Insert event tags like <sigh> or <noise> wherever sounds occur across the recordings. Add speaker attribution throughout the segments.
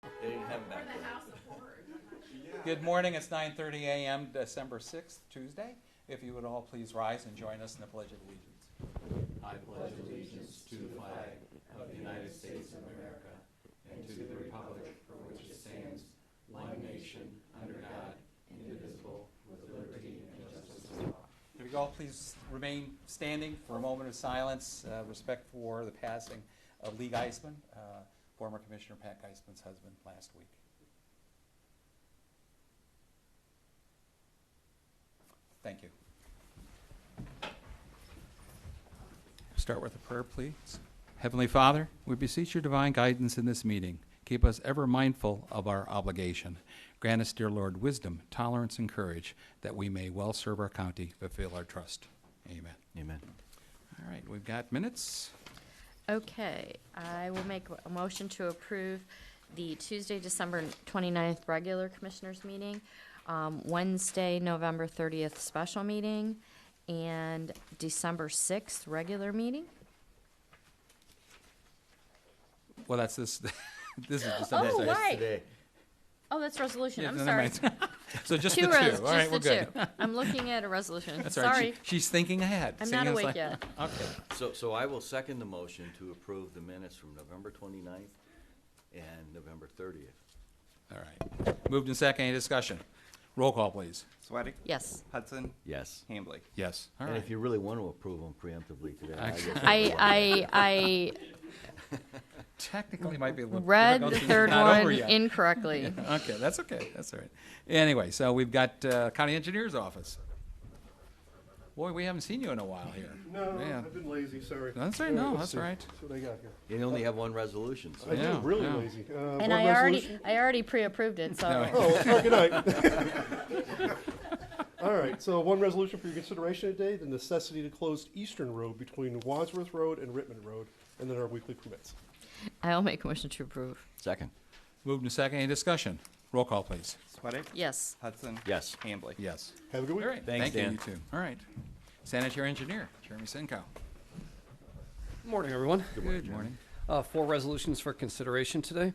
Speaker 1: them back.
Speaker 2: We're the house of horrors.
Speaker 1: Good morning, it's nine thirty AM, December sixth, Tuesday. If you would all please rise and join us in the Pledge of Allegiance.
Speaker 3: I pledge allegiance to the flag of the United States of America and to the republic for which it stands, one nation, under God, indivisible, with liberty and justice for all.
Speaker 1: If you all please remain standing for a moment of silence, uh, respect for the passing of Lee Geisman, uh, former Commissioner Pat Geisman's husband, last week. Thank you. Start with a prayer, please. Heavenly Father, we beseech your divine guidance in this meeting. Keep us ever mindful of our obligation. Grant us, dear Lord, wisdom, tolerance, and courage that we may well serve our county, fulfill our trust. Amen.
Speaker 3: Amen.
Speaker 1: All right, we've got minutes.
Speaker 4: Okay, I will make a motion to approve the Tuesday, December 29th regular commissioners meeting, um, Wednesday, November thirtieth special meeting, and December sixth regular meeting.
Speaker 1: Well, that's this, <laughs> this is just.
Speaker 4: Oh, right. Oh, that's resolution,
Speaker 1: Yeah,
Speaker 4: I'm
Speaker 1: never
Speaker 4: sorry.
Speaker 1: mind. <laughs> So just the
Speaker 4: <laughs> Two
Speaker 1: two,
Speaker 4: res,
Speaker 1: all right,
Speaker 4: just
Speaker 1: we're
Speaker 4: the
Speaker 1: good. <laughs>
Speaker 4: two. I'm looking at a resolution,
Speaker 1: That's all right,
Speaker 4: sorry.
Speaker 1: she- she's thinking ahead.
Speaker 4: I'm
Speaker 1: seeing
Speaker 4: not
Speaker 1: us
Speaker 4: awake
Speaker 1: like-
Speaker 4: yet.
Speaker 1: Okay,
Speaker 5: So, so I will second the motion to approve the minutes from November 29th and November 30th.
Speaker 1: all right. Moved and second, any discussion? Roll call, please.
Speaker 3: Sweattick?
Speaker 1: <laughs>
Speaker 4: Yes,
Speaker 3: Hudson?
Speaker 5: Yes.
Speaker 3: Hambley?
Speaker 1: Yes, all
Speaker 5: And
Speaker 1: right.
Speaker 5: if you really want to approve them preemptively today. I guess
Speaker 4: I,
Speaker 5: I'll-
Speaker 4: I,
Speaker 1: <laughs>
Speaker 4: I
Speaker 1: Technically might be a little.
Speaker 4: read
Speaker 1: difficult
Speaker 4: the
Speaker 1: since it's
Speaker 4: third
Speaker 1: not over
Speaker 4: one
Speaker 1: yet. <laughs>
Speaker 4: incorrectly.
Speaker 1: Okay, that's okay, that's all right. Anyway, so we've got uh, County Engineer's Office. Boy, we haven't seen you in a while here.
Speaker 6: No,
Speaker 1: Yeah.
Speaker 6: I've been lazy, sorry.
Speaker 1: That's all right,
Speaker 6: All
Speaker 1: no,
Speaker 6: let's
Speaker 1: that's
Speaker 6: see.
Speaker 1: all right.
Speaker 6: That's what I got here.
Speaker 5: You only have one resolution, so.
Speaker 6: I
Speaker 1: Yeah,
Speaker 6: am really
Speaker 1: yeah.
Speaker 6: lazy. Uh, board
Speaker 4: And I already,
Speaker 6: resolution?
Speaker 4: I already pre-approved it, so.
Speaker 1: No.
Speaker 6: Oh, well, sorry, good night. <laughs> All right, so one resolution for your consideration today, the necessity to close Eastern Road between Wadsworth Road and Rittman Road, and then our weekly permits.
Speaker 4: <laughs> I'll make a motion to approve.
Speaker 5: Second.
Speaker 1: Moved and second, any discussion? Roll call, please.
Speaker 3: Sweattick?
Speaker 4: Yes.
Speaker 3: Hudson?
Speaker 5: Yes.
Speaker 3: Hambley?
Speaker 1: Yes.
Speaker 6: Have a good
Speaker 1: All
Speaker 6: week.
Speaker 1: right,
Speaker 5: Thanks,
Speaker 1: thank you,
Speaker 5: Dan.
Speaker 1: you two. All right. Sanitary Engineer, Jeremy Senko.
Speaker 7: Morning, everyone.
Speaker 1: Good morning.
Speaker 7: Uh, Four resolutions for consideration today.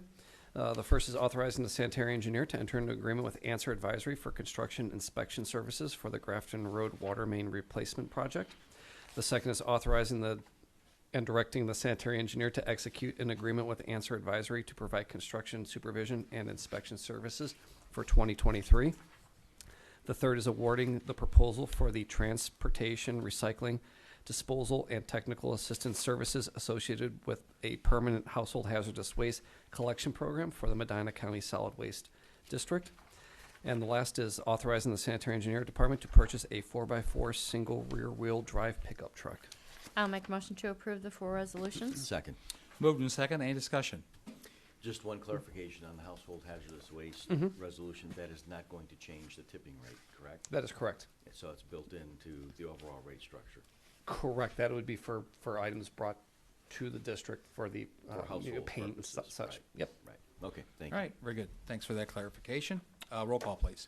Speaker 7: Uh, The first is authorizing the sanitary engineer to enter into agreement with Answer Advisory for construction inspection services for the Grafton Road Water Main Replacement Project. The second is authorizing the, and directing the sanitary engineer to execute an agreement with Answer Advisory to provide construction supervision and inspection services for 2023. The third is awarding the proposal for the transportation, recycling, disposal, and technical assistance services associated with a permanent household hazardous waste collection program for the Medina County Solid Waste District. And the last is authorizing the sanitary engineer department to purchase a four-by-four single rear-wheel drive pickup truck.
Speaker 4: I'll make a motion to approve the four resolutions.
Speaker 5: Second.
Speaker 1: Moved and second, any discussion?
Speaker 5: Just one clarification on the household hazardous waste resolution. That is not going to change the tipping rate, correct?
Speaker 7: Mm-hmm. That is correct.
Speaker 5: So it's built into the overall rate structure.
Speaker 7: Correct. That would be for, for items brought to the district for the,
Speaker 5: For
Speaker 7: uh, you know,
Speaker 5: household
Speaker 7: paint and su-
Speaker 5: purposes,
Speaker 7: such.
Speaker 5: right.
Speaker 7: Yep.
Speaker 5: Right. Okay, thank
Speaker 1: All
Speaker 5: you.
Speaker 1: right, very good. Thanks for that clarification. Uh, Roll call, please.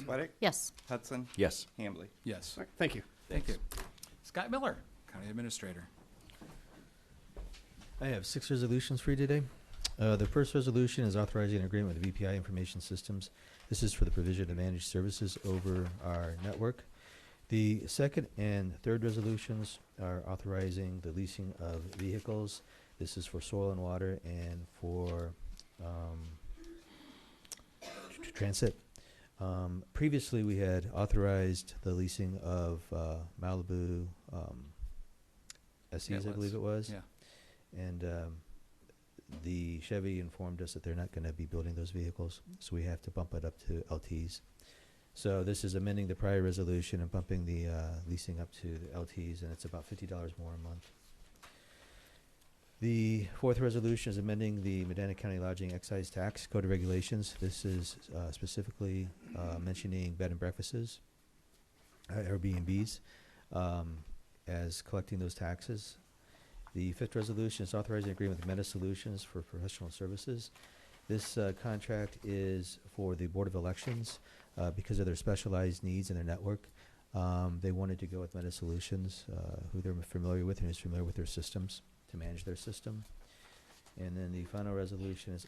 Speaker 3: Sweattick?
Speaker 4: Yes.
Speaker 3: Hudson?
Speaker 5: Yes.
Speaker 3: Hambley?
Speaker 1: Yes,
Speaker 7: All right. Thank you.
Speaker 1: thank you.
Speaker 5: Thanks.
Speaker 1: Scott Miller, County Administrator.
Speaker 8: I have six resolutions for you today. Uh, the first resolution is authorizing an agreement with VPI Information Systems. This is for the provision of managed services over our network. The second and third resolutions are authorizing the leasing of vehicles. This is for soil and water and for um, tr- tr- transit. Um, previously, we had authorized the leasing of uh, Malibu um, SEs, I
Speaker 1: was.
Speaker 8: believe it was.
Speaker 1: Yeah.
Speaker 8: And um, the Chevy informed us that they're not going to be building those vehicles, so we have to bump it up to LTs. So this is amending the prior resolution and bumping the uh, leasing up to the LTs, and it's about fifty dollars more a month. The fourth resolution is amending the Medina County Lodging Excise Tax Code of Regulations. This is uh, specifically uh, mentioning bed and breakfasts, uh, Airbnbs, um, as collecting those taxes. The fifth resolution is authorizing agreement with Meta Solutions for professional services. This uh, contract is for the Board of Elections uh, because of their specialized needs and their network. Um, They wanted to go with Meta Solutions, uh, who they're familiar with and is familiar with their systems, to manage their system. And then the final resolution is